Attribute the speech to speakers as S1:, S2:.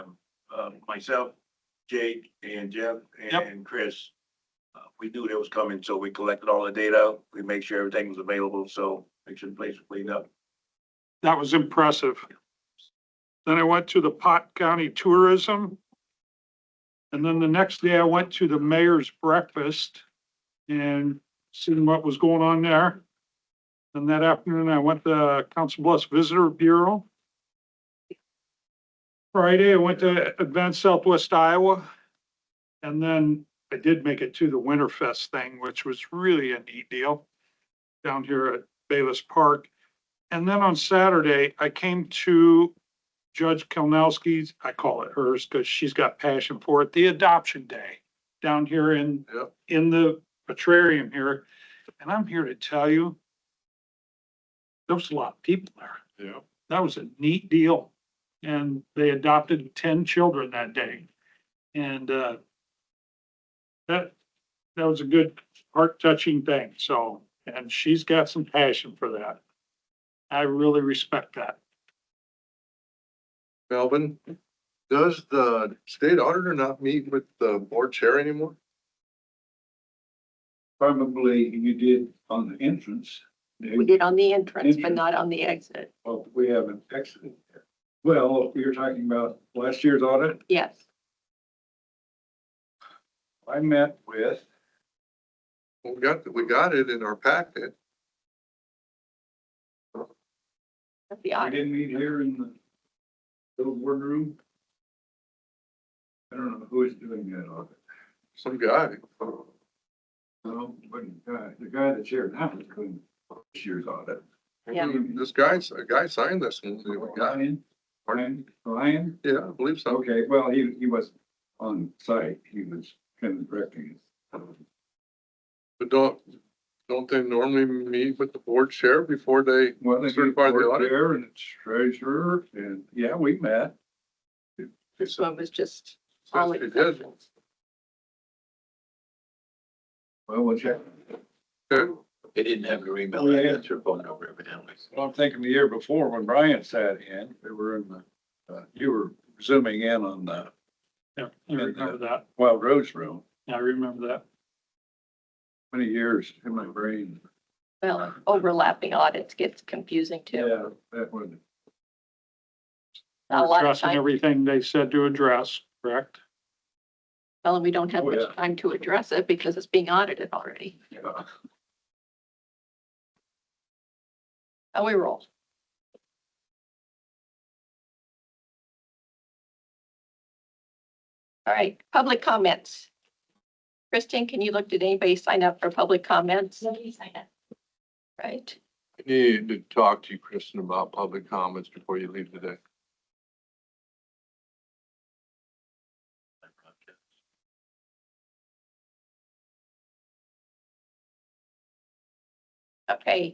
S1: uh, myself, Jake and Jeff
S2: Yep.
S1: and Chris. uh, We knew that was coming, so we collected all the data. We make sure everything was available, so make sure the place was cleaned up.
S2: That was impressive. Then I went to the Pot County Tourism. And then the next day I went to the mayor's breakfast and seen what was going on there. And that afternoon I went to Council Bluffs Visitor Bureau. Friday, I went to Advance Southwest Iowa. And then I did make it to the Winterfest thing, which was really a neat deal down here at Bayless Park. And then on Saturday, I came to Judge Kelnowski's, I call it hers because she's got passion for it, the adoption day down here in,
S1: Yep.
S2: in the petrarium here. And I'm here to tell you, there was a lot of people there.
S1: Yeah.
S2: That was a neat deal. And they adopted ten children that day. And, uh, that, that was a good heart touching thing. So, and she's got some passion for that. I really respect that.
S3: Melvin, does the state auditor not meet with the board chair anymore?
S4: Probably you did on the entrance.
S5: We did on the entrance, but not on the exit.
S4: Well, we have an exit. Well, you're talking about last year's audit.
S5: Yes.
S4: I met with,
S3: We got, we got it in our packet.
S5: at the
S4: we
S5: audit.
S4: didn't meet here in the little boardroom. I don't know who is doing that audit.
S3: Some guy.
S4: No, but the guy, the guy that's here now is doing this year's audit.
S5: Yeah.
S3: This guy, a guy signed this one. We got it.
S4: Ryan, Ryan, Ryan?
S3: Yeah, I believe so.
S4: Okay, well, he, he was on site. He was kind of directing it.
S3: But don't, don't they normally meet with the board chair before they,
S4: Well, they
S3: Certify
S4: certified
S3: the
S4: the
S3: audit?
S4: auditor and the treasurer, and yeah, we met.
S5: This one was just
S3: says
S5: all
S3: they did?
S5: exceptions.
S4: Well, we'll check.
S3: Okay.
S6: They didn't have your email
S4: Oh, yeah.
S6: address or phone number evidently.
S4: Well, I'm thinking the year before when Brian sat in, we were in the, uh, you were zooming in on the
S2: Yeah, I remember that.
S4: Wild Rose Room.
S2: I remember that.
S4: Many years in my brain.
S5: Well, overlapping audits gets confusing too.
S4: That was,
S5: A lot of
S2: Addressing
S5: time,
S2: everything they said to address, correct?
S5: well, and we don't have
S4: Oh,
S5: much
S4: yeah.
S5: time to address it because it's being audited already.
S4: yeah.
S5: Oh, we roll. All right, public comments. Kristen, can you look, did anybody sign up for public comments? Nobody signed up. Right,
S3: I Need to talk to you, Kristen, about public comments before you leave today.
S5: okay.